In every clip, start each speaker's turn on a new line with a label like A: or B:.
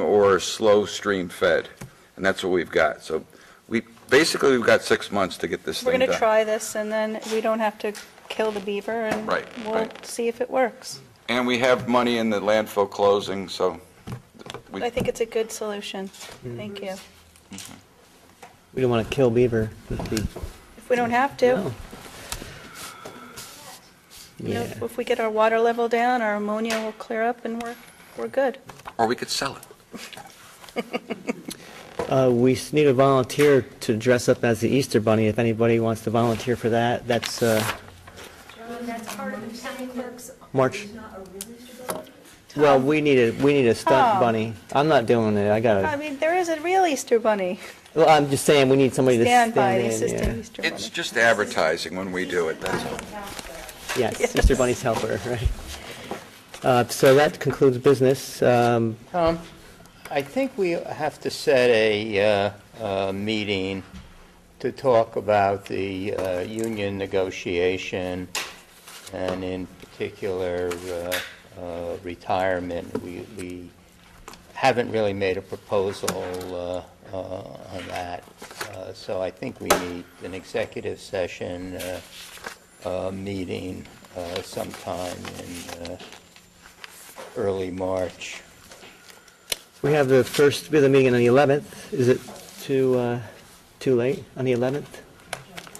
A: or slow stream fed, and that's what we've got. So we, basically, we've got six months to get this
B: We're
A: thing
B: going to
A: done.
B: try this, and then we don't have to kill the beaver, and
A: Right,
B: we'll
A: right.
B: see if it works.
A: And we have money in the landfill closing, so we-
B: I think it's a good solution. Thank you.
C: Mm-hmm. We don't want to kill beaver. That'd be-
B: If we don't have to,
C: no.
B: you know,
C: Yeah.
B: if we get our water level down, our ammonia will clear up, and we're, we're good.
A: or we could sell it.
C: Uh, we s- need a volunteer to dress up as the Easter Bunny. If anybody wants to volunteer for that, that's uh,
D: And that's part of the county clerk's.
C: March.
D: Not a real Easter Bunny?
C: Well, we need a we need a stunt
B: Oh.
C: bunny. I'm not doing it. I
B: I
C: gotta.
B: mean, there is a real Easter bunny.
C: Well, I'm just saying we need somebody to
B: Stand
C: stand
B: by the
C: in.
B: assistant Easter
A: It's
B: bunny.
A: just advertising when we do it, that's all.
C: yeah. Yes, Easter Bunny's helper, right? Uh, so that concludes business. Um,
E: Tom, I think we have to set a uh, uh, meeting to talk about the uh, union negotiation, and in particular, uh, uh, retirement. We we haven't really made a proposal uh, uh, on that, Uh, so I think we need an executive session uh, uh, meeting uh, sometime in uh, early March.
C: we have the first we have the meeting on the 11th. Is it too uh, too late on the 11th?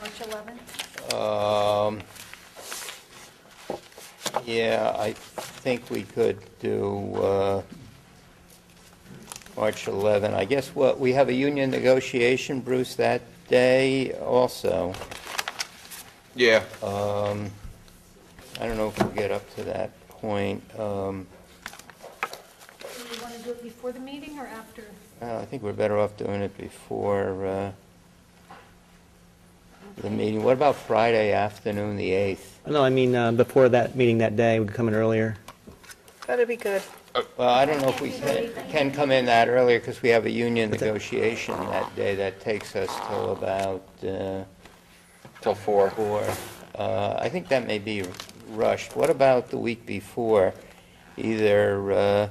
D: March 11th?
E: Um, Yeah, I think we could do uh, March 11. I guess what, we have a union negotiation, Bruce, that day also.
A: Yeah,
E: Um, I don't know if we'll get up to that point. Um,
D: Do you want to do it before the meeting or after?
E: uh, I think we're better off doing it before uh, the meeting. What about Friday afternoon, the 8th?
C: No, I mean uh, before that meeting that day. We could come in earlier.
B: That'd be good.
E: Well, I don't know if we can can come in that earlier, because we have a union negotiation that day that takes us till about uh,
A: till four.
E: four. Uh, I think that may be rushed. What about the week before? Either uh,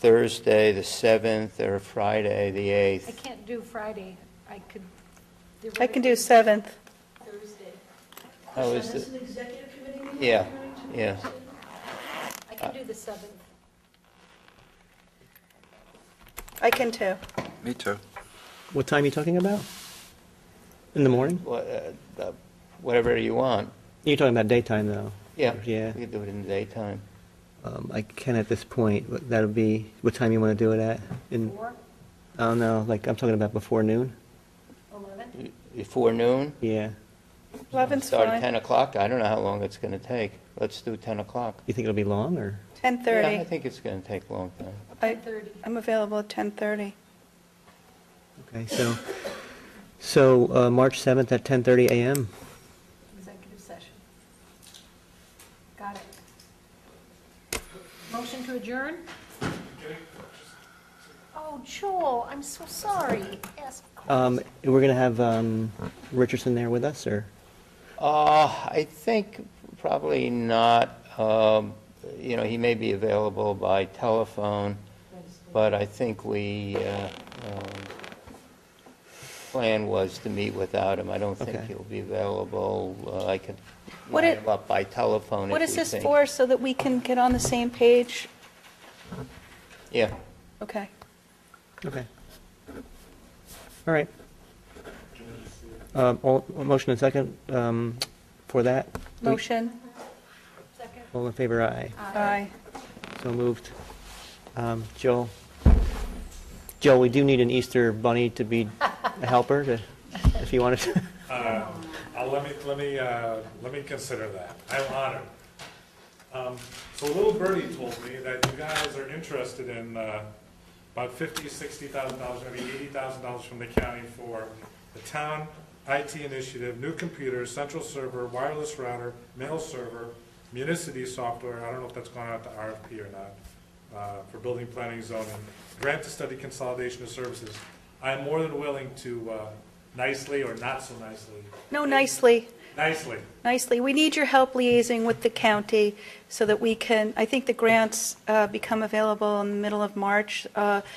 E: Thursday, the 7th, or Friday, the
D: I
E: 8th?
D: can't do Friday. I could.
B: I can do 7th.
D: Thursday.
E: How is
D: This
E: it? Yeah, yeah.
D: I can do the 7th.
B: I can too.
A: Me too.
C: What time are you talking about? In the morning?
E: What, uh, uh, Whatever you want.
C: You're talking about daytime, though.
E: Yeah.
C: Yeah.
E: We could do it in the daytime.
C: Um, I can at this point, but that'll be, what time you want to do it at? In,
D: Or
C: I don't know, like, I'm talking about before noon?
D: 11th?
E: Before noon?
C: Yeah.
B: 11th's
E: Start at
B: fine.
E: 10 o'clock? I don't know how long it's going to take. Let's do 10 o'clock.
C: You think it'll be long, or?
E: Yeah, I
B: 10:30.
E: think it's going to take a long time.
B: I-
D: 10:30.
B: I'm available at 10:30.
C: Okay, so, so, uh, March 7th at 10:30 a.m.
D: Executive session. Got it. Motion to adjourn? Oh, Joel, I'm so sorry. Yes, of
C: Um,
D: course.
C: we're gonna have, um, Richardson there with us, or?
E: Uh, I think probably not, um, you know, he may be available by telephone, but I think we, uh, um, plan was to meet without him. I don't think
C: Okay.
E: he'll be available. Uh, I could
B: What
E: line
B: it-
E: him up by telephone if we think.
B: What is this for, so that we can get on the same page?
E: Yeah.
B: Okay.
C: Okay. All right. Um, all, motion and second, um, for that?
B: Motion?
D: Second.
C: All in favor, aye.
B: Aye.
C: So moved. Um, Joe, Joe, we do need an Easter bunny to be a helper, to- if you wanted to.
F: Uh, I'll let me, let me, uh, let me consider that. I'm honored. Um, So Little Birdie told me that you guys are interested in uh, about fifty, sixty thousand dollars, maybe eighty thousand dollars from the county for the town IT initiative, new computers, central server, wireless router, mail server, municity software, I don't know if that's gone out to RFP or not, uh, for building planning zoning, grant to study consolidation of services. I'm more than willing to uh, nicely or not so nicely
B: No, nicely.
F: nicely.
B: nicely. We need your help liaising with the county so that we can, I think the grants uh, become available in the middle of March. Uh,